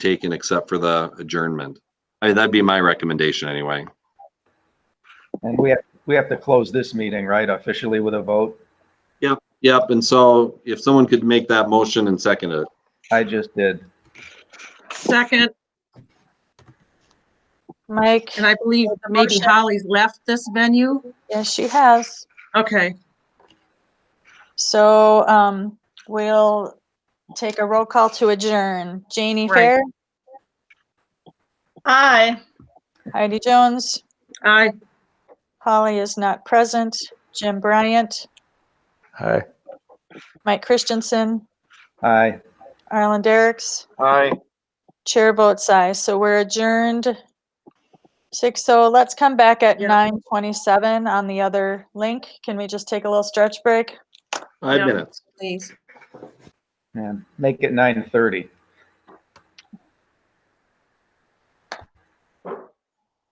taken except for the adjournment. I mean, that'd be my recommendation anyway. And we have, we have to close this meeting, right, officially with a vote? Yep, and so if someone could make that motion and second it. I just did. Second, Mike, and I believe maybe Holly's left this venue. yes, she has. Okay, So um, we'll take a roll call to adjourn. Janie Right. Fair, Aye. Heidi Jones, aye. Holly is not present, Jim Bryant, Hi. Mike Christensen, Aye. Arlen Derricks. Hi. Chair votes aye, so we're adjourned. Six, so let's come back at Yeah. nine twenty-seven on the other link. Can we just take a little stretch break? Five Yeah. minutes. Please. And make it nine thirty.